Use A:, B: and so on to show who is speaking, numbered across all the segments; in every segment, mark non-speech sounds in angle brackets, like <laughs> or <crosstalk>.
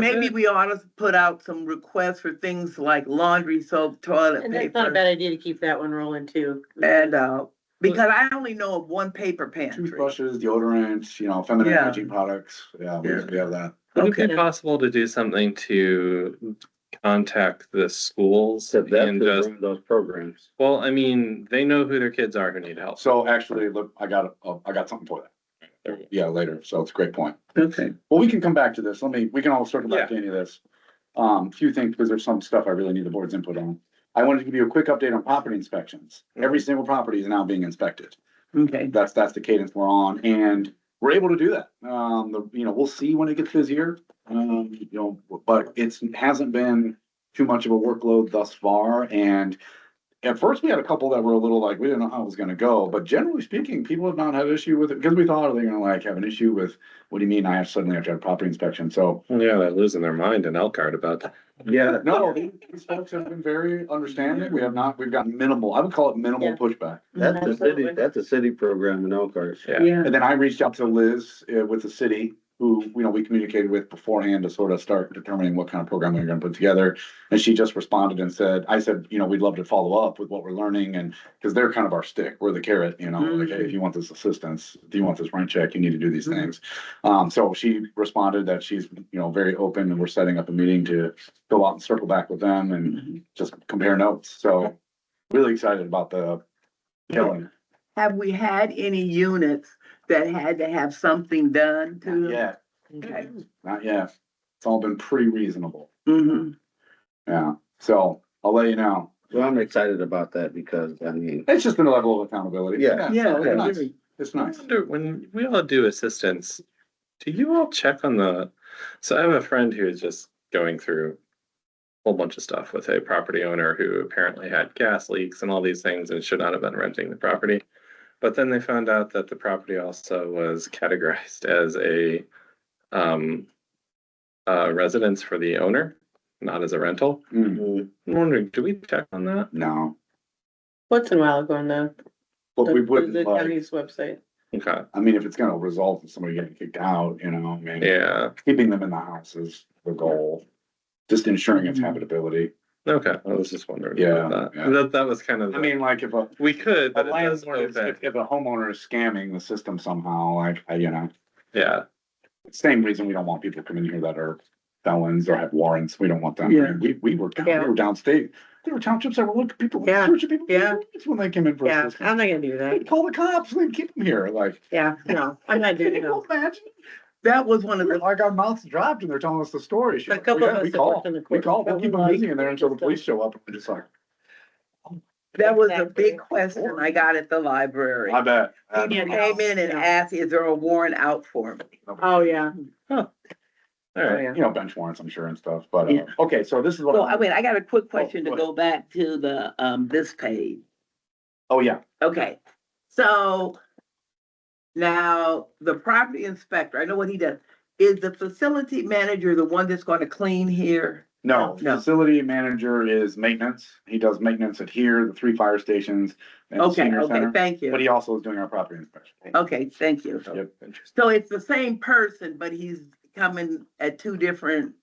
A: Maybe we ought to put out some requests for things like laundry soap, toilet
B: And that's not a
A: paper.
B: bad idea to keep that one rolling too. Mm,
A: And, uh, because I only know of one paper pantry.
C: Toothbrushes, deodorants, you know, feminine
A: Yeah.
C: hygiene products, yeah, we
A: Yeah.
C: we have that.
D: Would it
A: Okay.
D: be possible to do something to contact the schools
E: Said that
D: and
E: could
D: just,
E: run those programs.
D: well, I mean, they know who their kids are who need help.
C: So actually, look, I got, a- I got something for that. Yeah, later, so it's a great point.
A: Okay.
C: Well, we can come back to this. Let me, we can all circle back to any of this. Um, few things, because there's some stuff I really need the board's input on. I wanted to give you a quick update on property inspections. Every single property is now being inspected.
A: Okay,
C: That's, that's the cadence we're on, and we're able to do that. Um, the, you know, we'll see when it gets busier. Um, you know, but it's, hasn't been too much of a workload thus far, and at first, we had a couple that were a little like, we didn't know how it was gonna go, but generally speaking, people have not had an issue with it, because we thought, are they gonna like have an issue with, what do you mean, I have- suddenly have to have property inspection, so.
D: Yeah, they're losing their mind in Elkhart about that.
C: Yeah. No, these folks have been very understanding, we have not, we've got minimal, I would call it minimal
B: Yeah.
C: pushback.
E: That's a city,
B: Absolutely.
E: that's a city program in Elkhart.
D: Yeah.
A: yeah,
C: And then I reached out to Liz uh, with the city, who, you know, we communicated with beforehand to sort of start determining what kind of program we were gonna put together. And she just responded and said, I said, you know, we'd love to follow up with what we're learning and, cause they're kind of our stick, we're the carrot, you know, like, hey, if you want this assistance, if you want this rent check, you need to do these things. Um, so she responded that she's, you know, very open and we're setting up a meeting to go out and circle back with them and just compare notes, so. Really excited about the. Yeah,
A: have we had any units that had to have something done to them?
C: yeah.
A: Okay.
C: Not yet. It's all been pretty reasonable.
A: hmm
C: Yeah. So I'll let you know.
E: Well, I'm excited about that because, I mean,
C: It's just been a level of accountability.
E: Yeah.
A: Yeah,
C: It's
A: I
C: nice.
A: agree.
C: It's
D: I
C: nice.
D: wonder, when we all do assistance, do you all check on the, so I have a friend who is just going through a whole bunch of stuff with a property owner who apparently had gas leaks and all these things and should not have been renting the property. But then they found out that the property also was categorized <laughs> as a um uh residence for the owner, not as a rental.
C: Mm,
E: mm,
D: I'm wondering, do we check on that?
C: No,
B: Once in a while going though.
C: but
B: the-
C: we
B: The
C: wouldn't like,
B: county's website.
D: Okay,
C: I mean, if it's gonna result in somebody getting kicked out, you know, I mean,
D: yeah,
C: keeping them in the house is the goal. Just ensuring its habitability.
D: okay, I was just wondering.
C: Yeah,
D: about
C: yeah.
D: That, that that was kind of. the-
C: I mean, like if a,
D: We could,
C: a
D: but it does
C: landlord is-
D: open.
C: if, if a homeowner is scamming the system somehow, like, I- you know,
D: Yeah,
C: same reason we don't want people coming here that are felons or have warrants. We don't want them.
A: Yeah.
C: We, we were, down- we
B: Yeah.
C: were downstate. There were townships that were looking people,
B: Yeah.
C: searching people. for
B: Yeah.
C: warrants When they came in for
B: Yeah, I'm
C: assistance.
B: not gonna do
C: They'd
B: that.
C: call the cops and they'd keep them here like.
B: Yeah, no, I'm not
C: Can
B: doing
C: you
B: that.
C: imagine?
A: That was one of
C: We're
A: the,
C: Like our mouths dropped and they're telling us the story. She's
B: A
C: like,
B: couple
C: "Yeah,
B: of
C: We
B: us that
C: call,
B: worked in the
C: we
B: court.
C: call,
B: but
C: we'll keep
B: we
C: them
B: like-
C: busy in there until the police show up. and We're just like,
A: that was a
B: Exactly.
A: big question I got at the library.
C: I bet.
A: People came in and
B: Yeah.
A: asked, is there a warrant out for me?
B: <laughs> Oh, yeah.
D: all
B: Oh,
D: right.
B: yeah.
C: You know, bench warrants, I'm sure and stuff, but, uh,
A: Yeah.
C: okay, so this is what.
A: So
C: I'm-
A: I mean, I got a
B: oh,
A: quick question
C: go
A: to
C: ahead.
A: go back to the, um, this page.
C: Oh, yeah.
A: Okay, so now the property inspector, I know what he does. Is the facility manager the one that's gonna clean here?
C: No,
A: No.
C: facility manager is maintenance. He does maintenance at here, the three fire stations. and the
A: Okay,
C: senior
A: okay,
C: center,
A: thank
C: But
A: you.
C: he also is doing our property inspection.
A: Okay, thank you.
C: Oh, Yep.
D: Interesting.
A: So it's the same person, but he's coming at two different,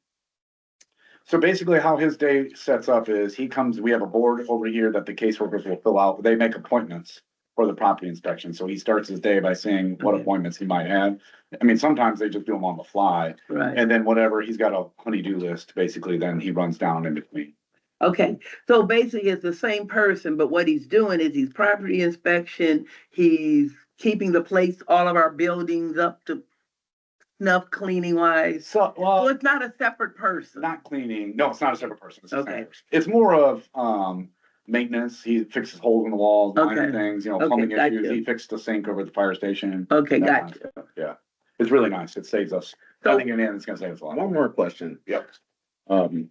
C: So basically how his day sets up is he comes, we have a board over here that the caseworkers will fill out. They make appointments for the property inspection. So he starts his day by seeing what
A: Okay.
C: appointments he might have. I mean, sometimes they just do them on the fly
A: right?
C: and then whatever, he's got a honey-do list, basically, then he runs down in between.
A: Okay, so basically it's the same person, but what he's doing is he's property inspection, he's keeping the place, all of our buildings up to snuff cleaning wise.
C: So,
A: So
C: well,
A: it's not a separate person.
C: not cleaning. No, it's not a separate person. It's the same
A: Okay.
C: person. It's more of, um, maintenance. He fixes holes in the walls, minor
A: Okay.
C: things, you know,
A: Okay,
C: plumbing
A: gotcha.
C: issues. He fixed the sink over at the fire station.
A: Okay,
C: that
A: got
C: kind of stuff. Yeah, it's really nice. It saves us. I
A: So-
C: think in the end, it's gonna save us a lot.
E: One more question.
C: Yep.
E: Um,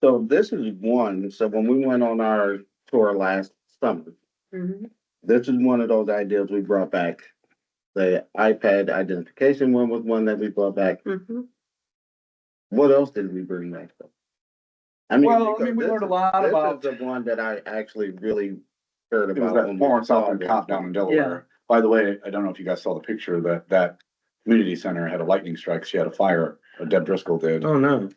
E: so this is one, so when we went on our tour last summer,
B: Mhm.
E: this is one of those ideas we brought back. The iPad identification one was one that we brought back.
B: Mhm.
E: What else did we bring back? though? I mean,
C: Well, I
E: because
C: mean, we
E: this
C: learned a
E: is-
C: lot
E: this
C: about,
E: is The one that I actually really heard
C: it was
E: about.
C: that
E: when we
C: former Southern
E: saw
C: cop
E: this.
C: down in Delaware. By the way, I don't know if you guys saw the picture that, that community center had a lightning strike. She had a fire
F: Deb Driscoll did.
C: Oh, no.